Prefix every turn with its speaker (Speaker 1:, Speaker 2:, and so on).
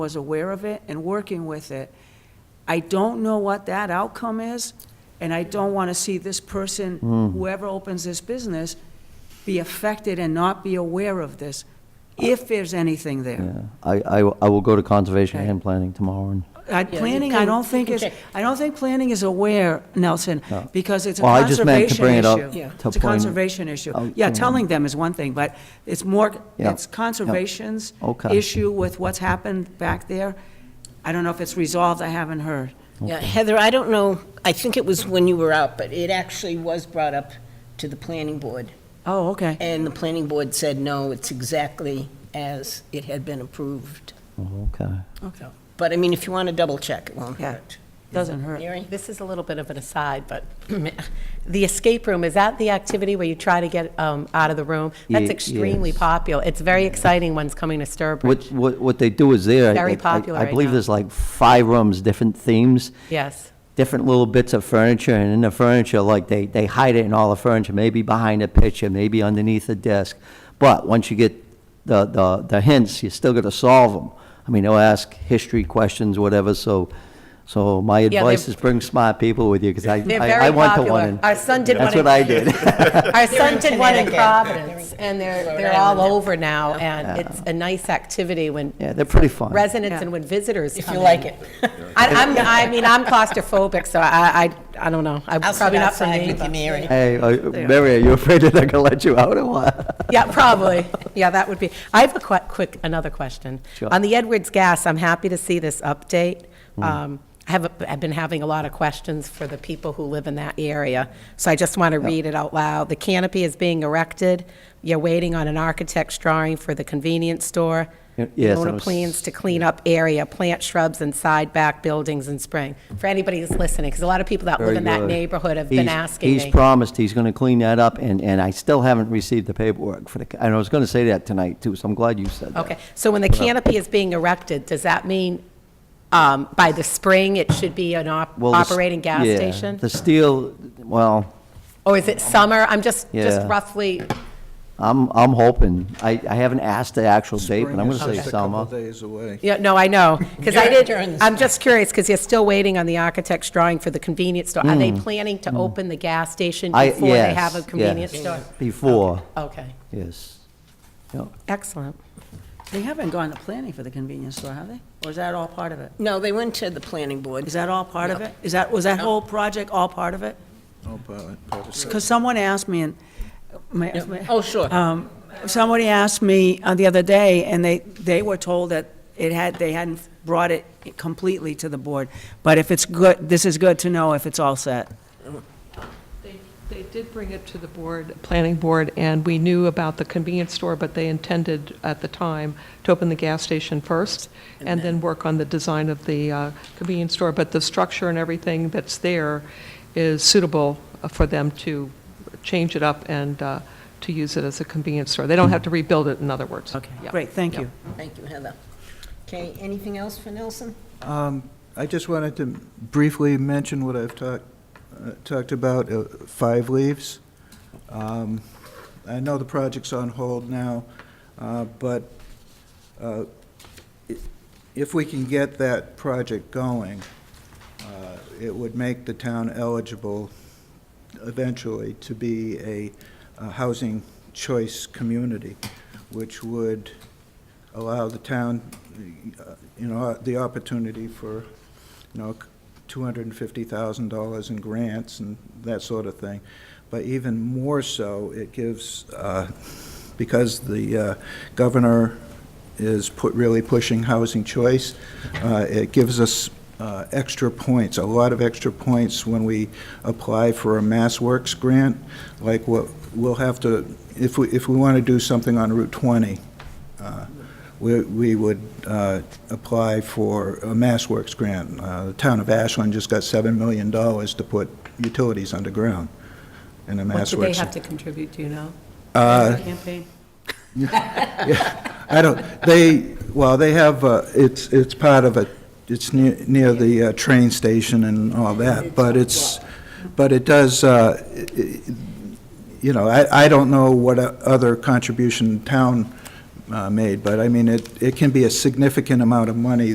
Speaker 1: was aware of it and working with it. I don't know what that outcome is, and I don't want to see this person,
Speaker 2: Hmm.
Speaker 1: whoever opens this business, be affected and not be aware of this, if there's anything there.
Speaker 2: Yeah, I, I, I will go to conservation
Speaker 1: Okay.
Speaker 2: and planning tomorrow and,
Speaker 1: I-
Speaker 3: you
Speaker 1: Planning, I
Speaker 3: can-
Speaker 1: don't
Speaker 3: you
Speaker 1: think
Speaker 3: can
Speaker 1: is,
Speaker 3: check.
Speaker 1: I don't think planning is aware, Nelson,
Speaker 2: No.
Speaker 1: because it's a
Speaker 2: Well, I just meant to
Speaker 1: conservation
Speaker 2: bring it up
Speaker 1: issue.
Speaker 3: Yeah.
Speaker 2: to
Speaker 1: It's a
Speaker 2: point
Speaker 1: conservation issue.
Speaker 2: out
Speaker 1: Yeah,
Speaker 2: to
Speaker 1: telling
Speaker 2: him.
Speaker 1: them is one thing, but it's more,
Speaker 2: Yeah.
Speaker 1: it's conservation's
Speaker 2: Okay.
Speaker 1: issue with what's happened back there. I don't know if it's resolved, I haven't heard.
Speaker 3: Yeah, Heather, I don't know, I think it was when you were out, but it actually was brought up to the planning board,
Speaker 1: Oh, okay.
Speaker 3: and the planning board said, no, it's exactly as it had been approved.
Speaker 2: oh, okay.
Speaker 1: Okay.
Speaker 3: But I mean, if you want to double check, it won't
Speaker 1: Yeah.
Speaker 3: hurt.
Speaker 1: Doesn't hurt.
Speaker 3: Mary?
Speaker 4: This is a little bit of an aside, but the escape room, is that the activity where you try to get um, out of the room?
Speaker 2: Ye-
Speaker 4: That's extremely
Speaker 2: yes.
Speaker 4: popular. It's very exciting when it's coming to
Speaker 2: What,
Speaker 4: Sturbridge.
Speaker 2: what, what they do is there. I-
Speaker 4: Very
Speaker 2: I- I-
Speaker 4: popular
Speaker 2: I
Speaker 4: right
Speaker 2: believe
Speaker 4: now.
Speaker 2: there's like five rooms, different themes,
Speaker 4: Yes,
Speaker 2: different little bits of furniture, and in the furniture, like, they, they hide it in all the furniture, maybe behind a picture, maybe underneath a desk. But once you get the, the, the hints, you're still gonna solve them. I mean, they'll ask history questions, whatever, so, so my
Speaker 4: they're-
Speaker 2: advice is bring smart people with you, because I,
Speaker 4: they're
Speaker 2: I I
Speaker 4: very
Speaker 2: went to one.
Speaker 4: popular.
Speaker 2: and-
Speaker 4: Our son did
Speaker 2: That's
Speaker 4: one
Speaker 2: what I
Speaker 4: in,
Speaker 2: did.
Speaker 4: our son did one in
Speaker 3: Connecticut.
Speaker 4: Providence, and they're,
Speaker 3: Rhode
Speaker 4: they're all
Speaker 3: Island.
Speaker 4: over now, and it's a nice activity when
Speaker 2: Yeah, they're pretty fun.
Speaker 4: residents
Speaker 1: Yeah.
Speaker 4: and when visitors
Speaker 3: If
Speaker 4: come
Speaker 3: you
Speaker 4: in.
Speaker 3: like it.
Speaker 4: I, I'm, I mean, I'm claustrophobic, so I, I, I don't know. I'm
Speaker 3: I'll sit
Speaker 4: probably not for
Speaker 3: outside
Speaker 4: me,
Speaker 3: with you,
Speaker 4: but-
Speaker 3: Mary.
Speaker 2: Hey, uh, Mary, are you afraid that they're gonna let you out or what?
Speaker 4: Yeah, probably. Yeah, that would be. I have a que- quick, another question.
Speaker 2: Sure. Hmm.
Speaker 4: On the Edwards Gas, I'm happy to see this update. Um, I have, a- I've been having a lot of questions for the people who live in that area, so I just want to read it out loud. The canopy is being erected. You're waiting on an architect's drawing for the convenience store.
Speaker 2: Y- yes, I
Speaker 4: Mona
Speaker 2: was-
Speaker 4: plans to clean up area, plant shrubs and side back buildings in spring. For anybody that's listening, because a lot of people that live in that neighborhood have been
Speaker 2: He's-
Speaker 4: asking
Speaker 2: He's
Speaker 4: me.
Speaker 2: promised he's gonna clean that up, and, and I still haven't received the paperwork for the, ca- and I was gonna say that tonight too, so I'm glad you said that.
Speaker 4: Okay, so when the canopy is being erected, does that mean um, by the spring, it should be an op-
Speaker 2: Well, the s-
Speaker 4: operating gas
Speaker 2: yeah,
Speaker 4: station?
Speaker 2: The steel, well,
Speaker 4: Or is it summer? I'm just, just
Speaker 2: Yeah.
Speaker 4: roughly,
Speaker 2: I'm, I'm hoping, I, I haven't asked the actual date, but I'm gonna
Speaker 4: is
Speaker 2: say
Speaker 4: just a
Speaker 2: summer.
Speaker 5: days away.
Speaker 4: yeah, no, I know, because I
Speaker 3: During- during
Speaker 4: did,
Speaker 3: the
Speaker 4: I'm just curious, because you're still waiting on the architect's drawing for the convenience store. Are they planning to open the gas station
Speaker 2: Mm. I-
Speaker 4: before they
Speaker 2: yes,
Speaker 4: have a convenience
Speaker 2: yes,
Speaker 4: store?
Speaker 2: Before,
Speaker 4: Okay,
Speaker 2: yes. Yep.
Speaker 4: excellent.
Speaker 1: They haven't gone to planning for the convenience store, have they? Or is that all part of it?
Speaker 3: No, they went to the planning board.
Speaker 1: Is that all part of it? Is that, was that whole project all part of it?
Speaker 5: Oh, probably- probably so.
Speaker 1: Because someone asked me, and, my- my-
Speaker 3: Oh, sure.
Speaker 1: um, somebody asked me uh, the other day, and they, they were told that it had, they hadn't brought it completely to the board. But if it's good, this is good to know if it's all set.
Speaker 6: They they did bring it to the board, planning board, and we knew about the convenience store, but they intended at the time to open the gas station first and then work on the design of the uh, convenience store. But the structure and everything that's there is suitable for them to change it up and uh, to use it as a convenience store. They don't have to rebuild it, in other words.
Speaker 1: Okay,
Speaker 6: Yeah.
Speaker 1: great, thank you.
Speaker 3: Thank you, Heather. Okay, anything else for Nelson?
Speaker 5: Um, I just wanted to briefly mention what I've talked, uh, talked about, uh, Five Leaves. Um, I know the project's on hold now, uh, but uh, i- if we can get that project going, uh, it would make the town eligible eventually to be a uh, housing choice community, which would allow the town, uh, you know, the opportunity for, you know, $250,000 in grants and that sort of thing. But even more so, it gives, uh, because the uh, governor is put, really pushing housing choice, uh, it gives us uh, extra points, a lot of extra points when we apply for a Mass Works grant, like what, we'll have to, if we, if we want to do something on Route 20, uh, we we would uh, apply for a Mass Works grant. Uh, The town of Ashland just got $7 million to put utilities underground in a
Speaker 4: What
Speaker 5: Mass Works.
Speaker 4: do they have to contribute, do you know?
Speaker 1: Campaign.
Speaker 5: I don't, they, well, they have, uh, it's, it's part of a, it's near, near the uh, train station and all that, but it's, but it does, uh, i- i- you know, I, I don't know what o- other contribution town uh, made, but I mean, it, it can be a significant amount of money